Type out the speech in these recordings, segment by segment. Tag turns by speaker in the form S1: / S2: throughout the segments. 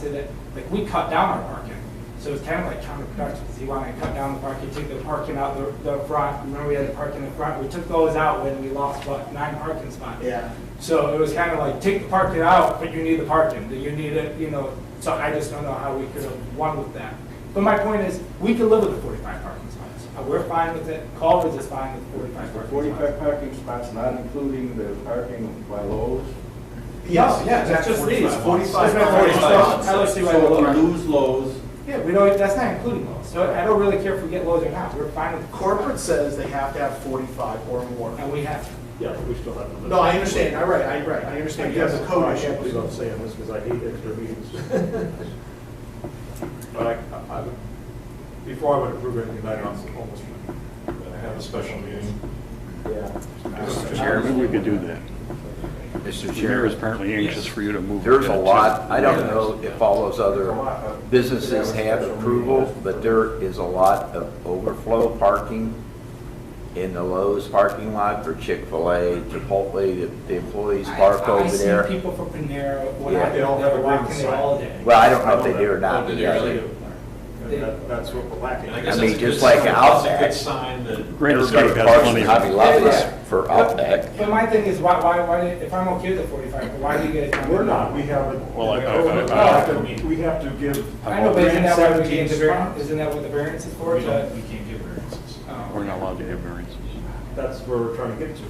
S1: to that, like, we cut down our parking. So it's kind of like counterproductive, because you want to cut down the parking, take the parking out the, the front, remember we had the parking in the front, we took those out when we lost, what, nine parking spots.
S2: Yeah.
S1: So it was kind of like, take the parking out, but you need the parking, you need it, you know, so I just don't know how we could have won with that. But my point is, we could live with the forty-five parking spots, Uh, we're fine with it, Culvers is fine with forty-five parking spots.
S3: Forty-five parking spots, not including the parking by Lowe's.
S1: Yes, yeah,
S2: that's
S1: just
S2: these,
S1: That's
S2: 45
S1: not
S2: parking
S1: forty-five.
S2: spots.
S1: I don't see why we
S3: So
S1: wouldn't.
S3: we lose Lowe's,
S1: Yeah, we don't, that's not including those, so I don't really care if we get those or not, we're fine with the
S2: Corporate says they have to have 45 or more.
S1: And we have,
S4: Yeah, but we still have to.
S2: No, I understand, I right, I right, I understand, you have the
S4: I
S2: code
S4: can't believe
S2: issue.
S4: I'm saying this because I hate extra meetings. But I, I, would- before I would approve anything, I'd also almost have a special meeting.
S3: yeah.
S4: Mr.
S5: Chairman, we could do that. The mayor is apparently anxious for you to move.
S6: There's a
S5: that, so-
S6: lot, I don't know if all those other businesses have approval, but there is a lot of overflow parking in the Lowe's parking lot for Chick-fil-A, Chipotle, the- the employees park
S1: I, I
S6: over
S1: see
S6: there.
S1: people from Panera, when
S6: Yeah.
S1: I,
S4: They all have
S1: they're
S4: a
S1: walking
S4: green
S1: there
S4: sign.
S1: all day.
S6: Well, I don't know if they do or not.
S7: Oh, did they
S6: yeah.
S7: really?
S4: And that- That's what we're lacking.
S7: I guess
S6: mean,
S7: that's a good
S6: just like
S7: sign.
S6: Outback.
S7: That's a good sign that.
S5: Great Escape
S6: Everybody
S5: has
S6: parks
S5: plenty
S6: in
S5: of-
S6: Hobby Lobby's for Outback.
S1: But my thing is, why, why, why, if I'm okay with the forty-five, why do you get it? down?
S4: We're not, we haven't.
S5: Well, I- I- I-
S4: We have to- We have to give.
S1: I know, but isn't that why we gave the variance,
S4: spots.
S1: isn't that what the variance is for,
S7: We
S1: to?
S7: don't, we can't give variances.
S1: oh.
S5: We're not allowed to have variances.
S4: That's where we're trying to get to.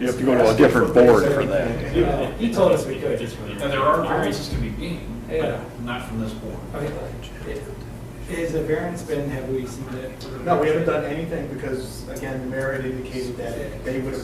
S5: You have to go to a different board for that.
S1: Yeah, You uh, told us we could.
S7: And there are variances to be gained,
S1: Yeah.
S7: but not from this board.
S1: Okay, it- Is the variance been, have we submitted?
S2: No, we haven't done anything because, again, the mayor had indicated that they would,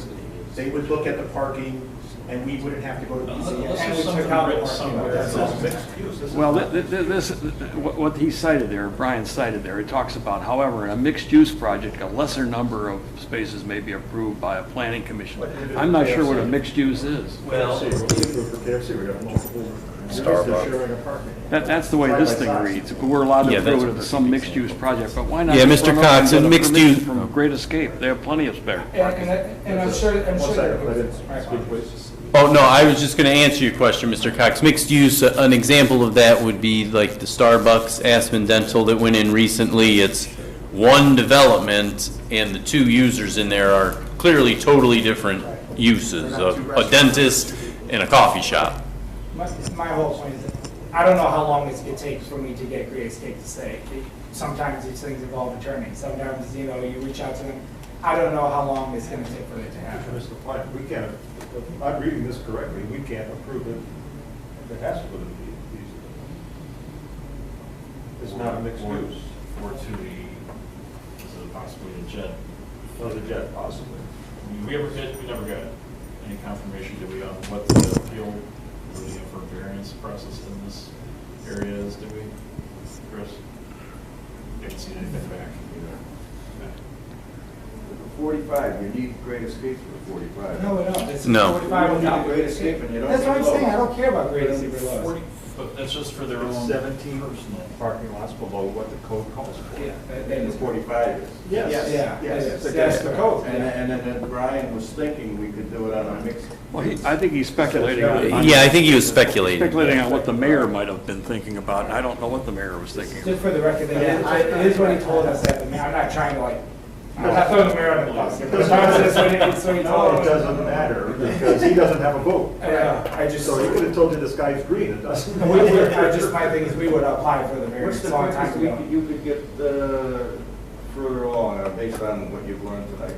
S2: they would look at the parking and we wouldn't have to go to
S7: Unless unless
S1: And
S2: BZA.
S1: we
S7: there's
S1: took
S7: something
S1: out the parking
S7: written
S1: lot.
S7: somewhere that
S2: That's
S7: says
S2: all.
S7: mixed use. This is
S5: Well,
S7: not-
S5: thi- thi- this, what what he cited there, Brian cited there, it talks about, however, in a mixed-use project, a lesser number of spaces may be approved by a planning commission. I'm not sure what a mixed use is.
S4: Well. For KFC, we got multiple.
S6: Starbucks.
S4: Sharing apartment.
S5: That, that's the way this thing reads. We're allowed to
S8: Yeah, that's
S5: approve it in some mixed-use project, but why not?
S8: Yeah,
S5: just
S8: Mr.
S5: run over and
S8: Cox,
S5: get
S8: in
S5: a
S8: mixed
S5: permission
S8: use-
S5: From Great Escape, they have plenty of spare.
S1: And, and- and I'm sure, I'm
S4: One
S1: sure.
S4: second, I
S1: there
S4: didn't
S1: was- my
S4: speak,
S1: apologies.
S4: please.
S8: Oh, no, I was just going to answer your question, Mr. Cox. Mixed use, uh, an example of that would be like the Starbucks Aspen Dental that went in recently. It's one development, and the two users in there are clearly totally different uses, a a dentist and a coffee shop.
S1: My, my whole point is, that I don't know how long it's gonna take for me to get Great Escape to stay. Sometimes these things involve attorneys, sometimes, you know, you reach out to them. I don't know how long it's gonna take for it to happen.
S4: Mr. Platt, we can't, if I'm reading this correctly, we can't approve it, it has to go to the PUC. It's not a mixed
S7: Or-
S4: use,
S7: Or to the, is it possibly a jet?
S4: or the jet possibly.
S7: We ever get, we never got any confirmation, did we, on what the appeal, or the for variance process in this area is, did we, Chris? Haven't seen anything back.
S3: Forty-five, you need great escapes for forty-five.
S1: No, no, it's
S8: No.
S1: forty-five without Great Escape.
S3: Escape and you don't.
S1: That's what I'm
S3: need Lowe's.
S1: saying, I don't care about Great Escape or Lowe's.
S7: Forty, but that's just for their
S4: It's
S7: own.
S4: Seventeen parking lots below what the code calls for.
S1: Yeah, that- that
S3: And
S1: is-
S3: the forty-five is.
S4: Yes.
S1: Yeah,
S4: Yes.
S1: that is- that's the code.
S3: And, and then that Brian was thinking we could do it on a mixed.
S5: Well, he- I think he's speculating. on- on-
S8: Yeah, I think he was speculating.
S5: Speculating on what the mayor might have been thinking about, and I don't know what the mayor was thinking.
S1: Just for the record, that is- it is what he told us at the, meeting. I'm not trying to like, I'm not throwing the mayor on the bus. It was just what he- it's what he told
S4: No, it
S1: us.
S4: doesn't matter, because he doesn't have a vote.
S1: Yeah, I just,
S4: So he could have told you the sky's green, it doesn't.
S1: we would, I just, my thing is, we would apply for the
S3: What's
S1: variance a
S3: the
S1: long time
S3: quickest we
S1: ago.
S3: could, you could get, uh, further along, uh, based on what you've learned tonight?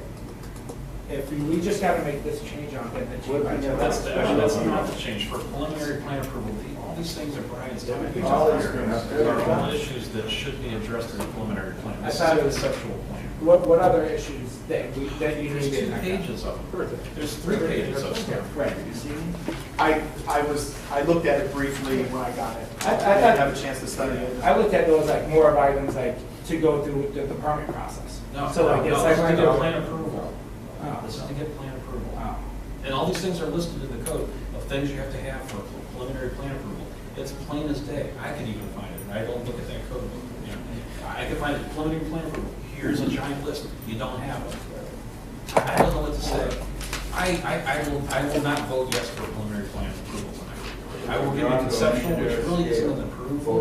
S1: If we, we just gotta make this change on it, that
S3: What
S1: change by
S3: we have-
S7: That's, the- actually, that's not the change, for preliminary plan approval, the- all these things are Brian's doing. These
S3: All
S7: are
S3: these things.
S7: all issues that should be addressed in the preliminary plan,
S1: I
S7: this is
S1: thought
S7: a
S1: it was-
S7: conceptual plan.
S1: What, what other issues that we, that you
S7: There's
S1: need
S7: two
S1: in that?
S7: pages of it, there's three pages of stuff.
S2: Right. I, I was, I looked at it briefly when I got it.
S1: I- I thought-
S2: didn't have a chance to study it.
S1: I looked at those like more of items like to go through the, the permit process.
S7: No,
S1: So
S7: no,
S1: like, it's
S7: no,
S1: like.
S7: this is to get plan approval.
S1: Oh.
S7: This is to get plan approval.
S1: Oh.
S7: And all these things are listed in the code of things you have to have for preliminary plan approval. It's plain as day. I can even find it, and I don't look at that code book. you know. I can find it, preliminary plan approval. Here's a giant list. You don't have it. I don't know what to say. I, I, I will, I will not vote yes for preliminary plan approval tonight. I will give you conceptual, which really isn't an approval.